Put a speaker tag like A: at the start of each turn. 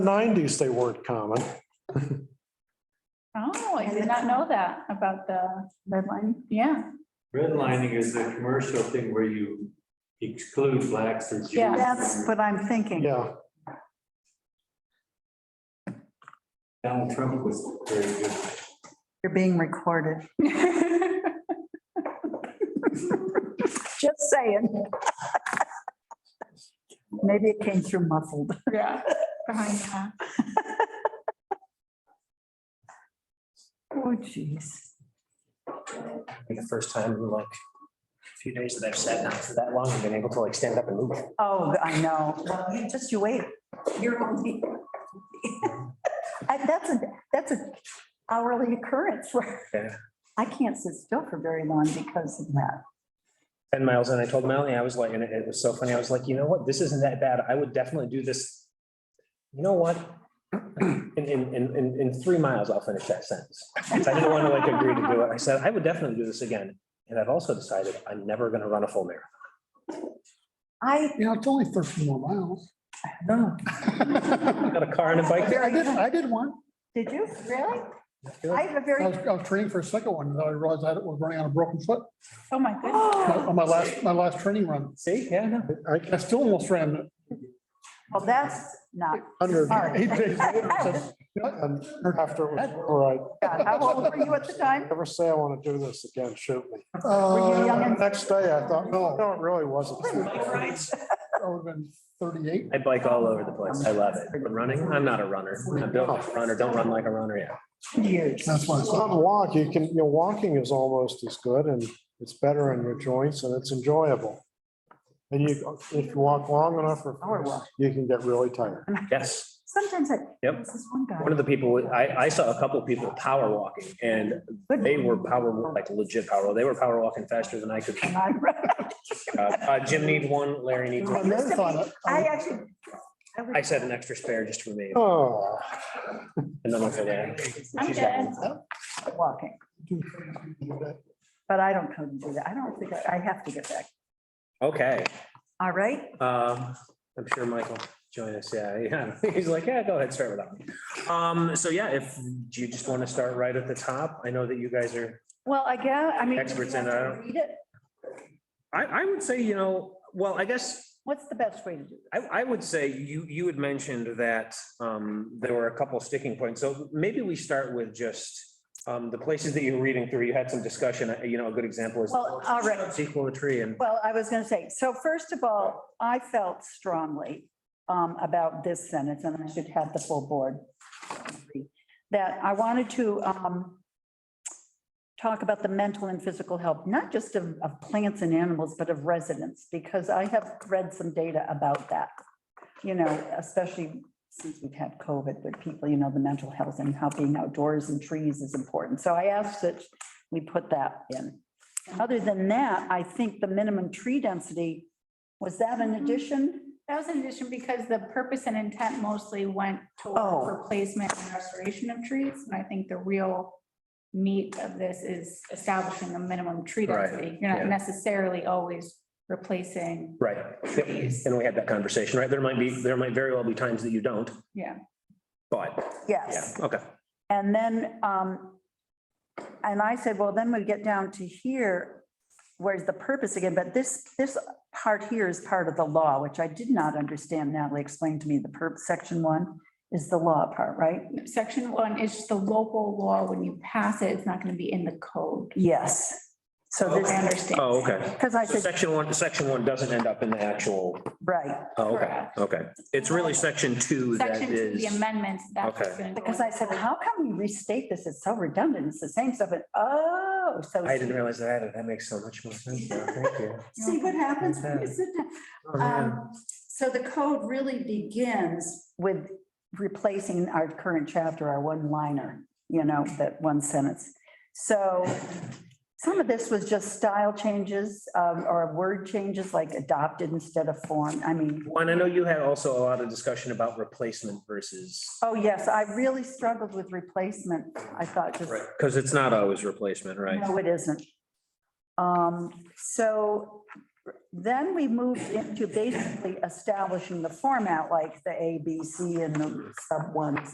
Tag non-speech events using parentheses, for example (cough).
A: nineties, they weren't common.
B: Oh, I did not know that about the red line. Yeah, (laughs)
C: Redlining is the commercial thing where you exclude blacks or Jews.
B: Yeah.
D: That's what I'm thinking.
A: Yeah,
C: Donald Trump was very good.
D: You're being recorded. Just saying. Maybe it came through muffled.
B: yeah. behind that.
D: Oh, jeez.
E: be the first time in like a few days that I've sat down for that long and been able to like stand up and move.
D: Oh, I know. Well, you- Just you wait. You're only. (laughs) I- That's a, that's a hourly occurrence where
E: Yeah.
D: I can't sit still for very long because of that.
E: Ten miles and I told Melanie, I was like, and it- it was so funny. I was like, you know what? This isn't that bad. I would definitely do this. You know what? In, in, in, in, in three miles, I'll finish that sentence. 'Cause I didn't want to like agree to do it. I said, I would definitely do this again. And I've also decided I'm never going to run a full marathon.
D: I,
F: Yeah, it's only thirteen more miles.
E: No.
F: I
E: Got a car and a bike.
F: did, I did one.
D: did you? Really? I
E: I
D: have a
F: I was,
D: very,
F: I was training for a second one, and I realized I was running on a broken foot
B: Oh, my goodness.
D: (gasps)
F: my- on my last, my last training run.
E: See, yeah, no.
A: I
F: I still almost ran
D: well, that's not.
A: under
D: Sorry.
A: eight days later,
D: (laughs)
A: since- and after it was, all right,
D: God, How old were you at the time?
A: never say I want to do this again, shoot me.
D: you young
F: uh,
D: and-
A: Next day, I thought, no, no, it really wasn't.
F: I would have been thirty-eight.
E: I bike all over the place. I love it. But running, I'm not a runner. I'm built like a runner. Don't run like a runner. Yeah.
D: Years.
F: That's why I
A: It's not
F: said,
A: a walk, you can, you know, walking is almost as good and it's better on your joints and it's enjoyable. And you, if you walk long enough, or you can get really tired.
E: Yes.
D: Sometimes I.
E: Yep.
D: there's This one guy.
E: One of the people, I, I saw a couple of people power walking and
D: Good.
E: they were power, like legit power. They were power walking faster than I could.
D: And (laughs) I
E: Uh, uh, Jim need one, Larry needs
F: I
E: one.
F: marathon,
D: I
F: I-
D: actually. was-
E: I said an extra spare just for me.
A: Oh,
E: Another for Larry.
B: I'm dead.
D: Walking, but I don't come to do that. I don't think, I I have to get back.
E: Okay.
D: All right,
E: Um, I'm sure Michael join us. Yeah, (laughs) yeah. He's like, yeah, go ahead, start without me. Um, so yeah, if do you just want to start right at the top, I know that you guys are
B: Well, I guess, I mean.
E: experts in, it. I don't. I, I would say, you know, well, I guess
D: what's the best way to do
E: I, I would say you, you had mentioned that um, there were a couple sticking points. So maybe we start with just um, the places that you're reading through. You had some discussion, uh, you know, a good example is.
D: Well, all right.
E: shrubs Equal a tree and.
D: this? Well, I was going to say, so first of all, I felt strongly um, about this sentence, and I should have the full board. agree, That I wanted to um, talk about the mental and physical health, not just of of plants and animals, but of residents, because I have read some data about that. You know, especially since we've had COVID, with people, you know, the mental health and how being outdoors and trees is important. So I asked that we put that in. Other than that, I think the minimum tree density, was that an addition?
B: That was an addition because the purpose and intent mostly went
D: Oh.
B: toward replacement and restoration of trees. And I think the real meat of this is establishing a minimum tree
E: Right,
B: density. You're not
E: yeah.
B: necessarily always replacing,
E: Right. Yep. And we had that conversation, right? There might be, there might very well be times that you don't,
B: yeah.
E: but yeah,
D: Yes.
E: okay.
D: And then, um, and I said, well, then we get down to here, where's the purpose again? But this, this part here is part of the law, which I did not understand. Natalie explained to me the perp, section one is the law part, right?
B: Section one is just the local law. When you pass it, it's not going to be in the code.
D: Yes. So
B: I
D: this,
B: understand.
E: Oh, okay.
D: because I
E: So
D: said,
E: section one, section one doesn't end up in the actual,
D: right,
E: oh, okay,
B: Correct.
E: okay. It's really section two that
B: Section two, the
E: is.
B: amendments, that's what's
E: Okay.
B: going to go.
D: because I said, how can we restate this? It's so redundant. It's the same stuff. And oh, so.
E: I didn't realize that. That makes so much more sense. now. Thank you.
D: See what happens when you sit down.
E: Oh, man.
D: Um, So the code really begins with replacing our current chapter, our one liner, you know, that one sentence. So some of this was just style changes um, or word changes like adopted instead of formed. I mean,
E: Juan, I know you had also a lot of discussion about replacement versus,
D: oh yes, I really struggled with replacement. I thought just
E: because it's not always replacement, right?
D: No, it isn't. Um, so Then we moved into basically establishing the format, like the A, B, C, and the sub ones